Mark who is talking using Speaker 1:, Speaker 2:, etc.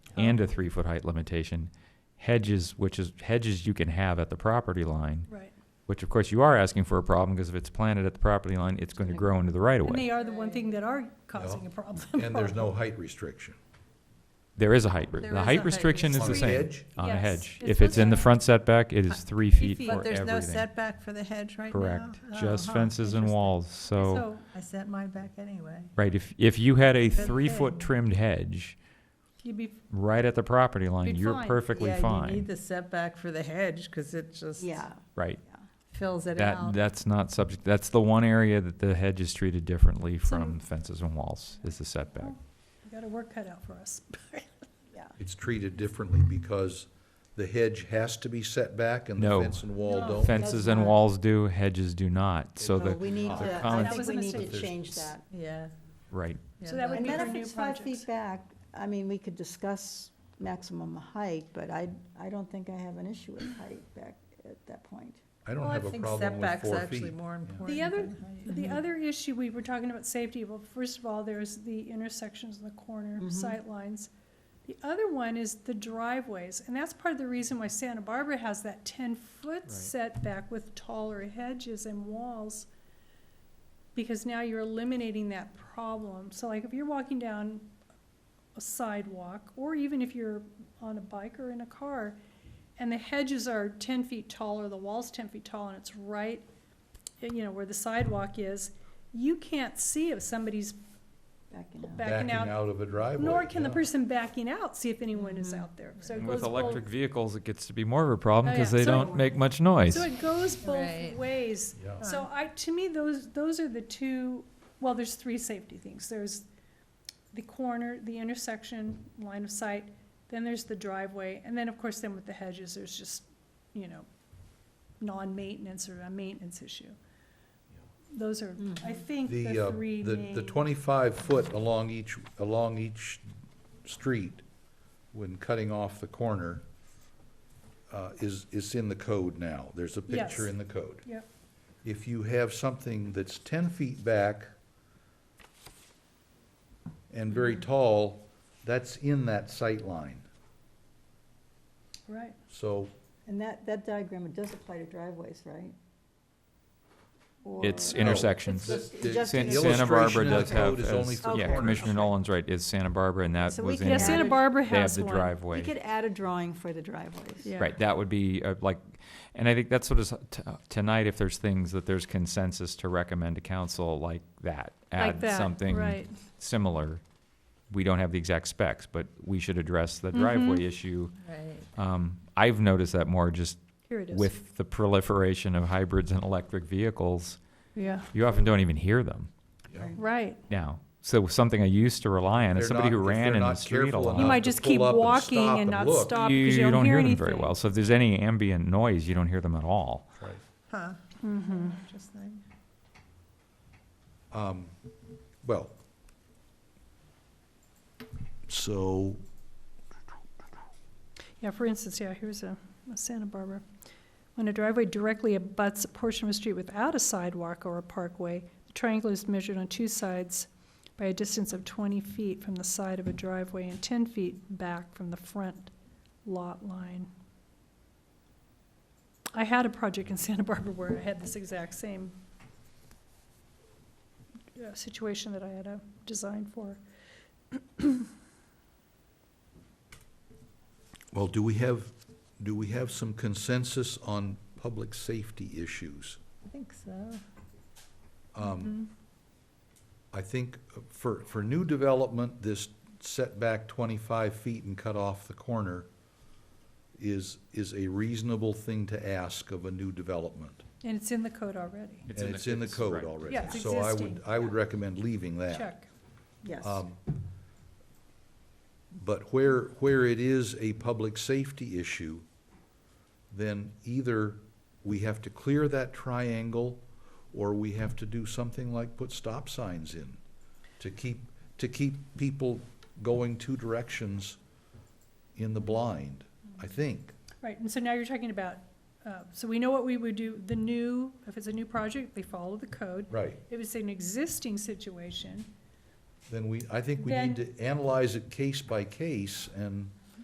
Speaker 1: and
Speaker 2: Oh.
Speaker 1: a three foot height limitation. Hedges, which is hedges you can have at the property line,
Speaker 3: Right.
Speaker 1: which of course you are asking for a problem because if it's planted at the property line, it's going to grow into the right of
Speaker 3: And
Speaker 1: way.
Speaker 3: they are the one thing that are causing a problem.
Speaker 4: And there's no height restriction.
Speaker 1: There is a height, re-
Speaker 2: There
Speaker 1: the
Speaker 2: is a
Speaker 1: height
Speaker 2: height
Speaker 1: restriction is
Speaker 4: On
Speaker 1: the
Speaker 4: a
Speaker 1: same.
Speaker 4: hedge,
Speaker 1: On a
Speaker 3: Yes,
Speaker 1: hedge.
Speaker 3: it's
Speaker 1: If it's in the
Speaker 3: supposed to-
Speaker 1: front setback, it is three feet
Speaker 3: feet.
Speaker 1: for
Speaker 2: Uh, But there's no
Speaker 1: everything.
Speaker 2: setback for the hedge right now?
Speaker 1: Correct. Just
Speaker 2: Uh-huh,
Speaker 1: fences and
Speaker 2: interesting.
Speaker 1: walls, so,
Speaker 3: So
Speaker 2: I set mine back anyway.
Speaker 1: right, if, if you had a
Speaker 2: Good
Speaker 1: three foot
Speaker 2: thing.
Speaker 1: trimmed hedge
Speaker 3: you'd be,
Speaker 1: right at the property line,
Speaker 3: Be
Speaker 1: you're
Speaker 3: fine.
Speaker 1: perfectly
Speaker 2: Yeah, you need
Speaker 1: fine,
Speaker 2: the setback for the hedge, because it just
Speaker 5: Yeah,
Speaker 1: right?
Speaker 2: fills it
Speaker 1: That,
Speaker 2: out.
Speaker 1: that's not subject, that's the one area that the hedge is treated differently from fences and walls, is the setback.
Speaker 3: we got a work cut out for us.
Speaker 2: Yeah.
Speaker 4: it's treated differently
Speaker 1: Mm-hmm.
Speaker 4: because the hedge has to be set back and the
Speaker 1: No.
Speaker 4: fence and wall
Speaker 3: No.
Speaker 4: don't.
Speaker 1: Fences and
Speaker 2: not-
Speaker 1: walls do, hedges do not, so
Speaker 2: No,
Speaker 1: the,
Speaker 5: we need
Speaker 4: the
Speaker 5: to,
Speaker 1: common-
Speaker 5: I
Speaker 3: That
Speaker 5: think
Speaker 3: was a
Speaker 5: we need to
Speaker 3: mistake.
Speaker 5: change that.
Speaker 2: Yeah.
Speaker 1: right,
Speaker 3: So that would
Speaker 5: And
Speaker 3: be
Speaker 5: then
Speaker 3: for
Speaker 5: if
Speaker 3: new
Speaker 5: it's five
Speaker 3: projects.
Speaker 5: feet back, I mean, we could discuss maximum height, but I, I don't think I have an issue with height back at that point.
Speaker 4: I don't
Speaker 2: Well, I
Speaker 4: have a
Speaker 2: think
Speaker 4: problem with
Speaker 2: setback's
Speaker 4: four
Speaker 2: actually
Speaker 4: feet.
Speaker 2: more important
Speaker 3: The other-
Speaker 2: than height.
Speaker 3: The
Speaker 4: Mm-hmm.
Speaker 3: other issue, we were talking about safety, well, first of all, there's the intersections and the corner
Speaker 2: Mhm.
Speaker 4: Mm-hmm.
Speaker 3: sightlines. The other one is the driveways, and that's part of the reason why Santa Barbara has that ten-foot setback with taller hedges and walls. Because now you're eliminating that problem, so like if you're walking down a sidewalk, or even if you're on a bike or in a car, and the hedges are ten feet tall, or the wall's ten feet tall, and it's right, you know, where the sidewalk is, you can't see if somebody's
Speaker 5: Backing out.
Speaker 3: backing out
Speaker 4: of a driveway.
Speaker 3: nor can the
Speaker 4: yeah.
Speaker 3: person backing out see if anyone is out there. So it
Speaker 1: And
Speaker 3: goes
Speaker 1: with electric
Speaker 3: both,
Speaker 1: vehicles, it gets to be more of a problem
Speaker 3: Oh,
Speaker 1: because
Speaker 3: yeah.
Speaker 1: they
Speaker 3: So-
Speaker 1: don't make much noise.
Speaker 3: so it goes both
Speaker 5: Right.
Speaker 3: ways.
Speaker 4: Yeah.
Speaker 3: So I, to me, those, those are the two, well, there's three safety things. There's the corner, the intersection, line of sight, then there's the driveway, and then, of course, then with the hedges, there's just, you know, non-maintenance or a maintenance issue. Those are, I think,
Speaker 4: The, uh,
Speaker 3: the three
Speaker 4: the,
Speaker 3: main.
Speaker 4: the twenty-five foot along each, along each street, when cutting off the corner, uh, is, is in the code now. There's a picture
Speaker 3: Yes.
Speaker 4: in the code.
Speaker 3: Yep.
Speaker 4: If you have something that's ten feet back and very
Speaker 3: Mm-hmm.
Speaker 4: tall, that's in that sight line.
Speaker 3: Right,
Speaker 4: So
Speaker 5: And that, that diagram, it does apply to driveways, right? Or-
Speaker 1: It's intersections.
Speaker 4: It's
Speaker 5: just- it's just
Speaker 1: San-
Speaker 5: an
Speaker 4: The
Speaker 1: Santa Barbara
Speaker 4: illustration in the
Speaker 1: does have,
Speaker 4: code is only
Speaker 1: as-
Speaker 4: for
Speaker 1: yeah,
Speaker 5: corners.
Speaker 1: Commissioner Nolan's right, is Santa Barbara, and that
Speaker 5: So we
Speaker 1: was in.
Speaker 5: can
Speaker 3: yeah,
Speaker 1: there.
Speaker 5: add
Speaker 3: Santa Barbara
Speaker 1: They have
Speaker 3: has
Speaker 1: the
Speaker 3: one.
Speaker 5: You
Speaker 1: driveway.
Speaker 5: could add a drawing for the driveways.
Speaker 3: Yeah.
Speaker 1: Right, that would be uh, like, and I think that's what is, t- uh, tonight, if there's things that there's consensus to recommend to council like that,
Speaker 3: Like
Speaker 1: add
Speaker 3: that,
Speaker 1: something
Speaker 3: right.
Speaker 1: similar. We don't have the exact specs, but we should address the
Speaker 3: Mm-hmm.
Speaker 1: driveway issue.
Speaker 2: Right.
Speaker 1: Um, I've noticed that more just
Speaker 3: Here it is.
Speaker 1: with the proliferation of hybrids and electric vehicles.
Speaker 3: Yeah,
Speaker 1: You often don't even hear them
Speaker 3: right.
Speaker 1: now. So something I used to rely on is
Speaker 4: They're
Speaker 1: somebody
Speaker 4: not-
Speaker 1: who
Speaker 4: if
Speaker 1: ran
Speaker 4: they're
Speaker 1: in the
Speaker 4: not
Speaker 1: street a
Speaker 4: careful
Speaker 1: lot.
Speaker 3: You
Speaker 4: Uh,
Speaker 3: might
Speaker 4: to
Speaker 3: just
Speaker 4: pull
Speaker 3: keep
Speaker 4: up and
Speaker 3: walking
Speaker 4: stop
Speaker 3: and
Speaker 4: and
Speaker 3: not
Speaker 4: look.
Speaker 3: stop because you don't hear
Speaker 1: them
Speaker 3: anything.
Speaker 1: very well. So if there's any ambient noise, you don't hear them at all.
Speaker 4: Right.
Speaker 5: Huh. Interesting.
Speaker 4: Um, Well, so,
Speaker 3: Yeah, for instance, yeah, here's a, a Santa Barbara. When a driveway directly abuts a portion of a street without a sidewalk or a parkway, the triangle is measured on two sides by a distance of twenty feet from the side of a driveway and ten feet back from the front lot line. I had a project in Santa Barbara where I had this exact same uh, situation that I had a design for.
Speaker 4: well, do we have, do we have some consensus on public safety issues?
Speaker 5: I think so.
Speaker 3: Mm-hmm.
Speaker 4: Um, I think uh, for, for new development, this setback twenty-five feet and cut off the corner is, is a reasonable thing to ask of a new development.
Speaker 3: And it's in the code already.
Speaker 1: It's in
Speaker 4: And
Speaker 1: the-
Speaker 4: it's in the
Speaker 1: it's-
Speaker 4: code
Speaker 1: right.
Speaker 4: already.
Speaker 3: Yeah, it's
Speaker 4: So I would,
Speaker 3: existing.
Speaker 4: I would recommend leaving that.
Speaker 3: Check.
Speaker 5: Yes.
Speaker 4: Um, But where, where it is a public safety issue, then either we have to clear that triangle, or we have to do something like put stop signs in to keep, to keep people going two directions in the blind, I think.
Speaker 3: Right, and so now you're talking about, uh, so we know what we would do, the new, if it's a new project, they follow the code.
Speaker 4: Right.
Speaker 3: If it's an existing situation,
Speaker 4: Then we, I think we need to
Speaker 3: Then-
Speaker 4: analyze it case by case and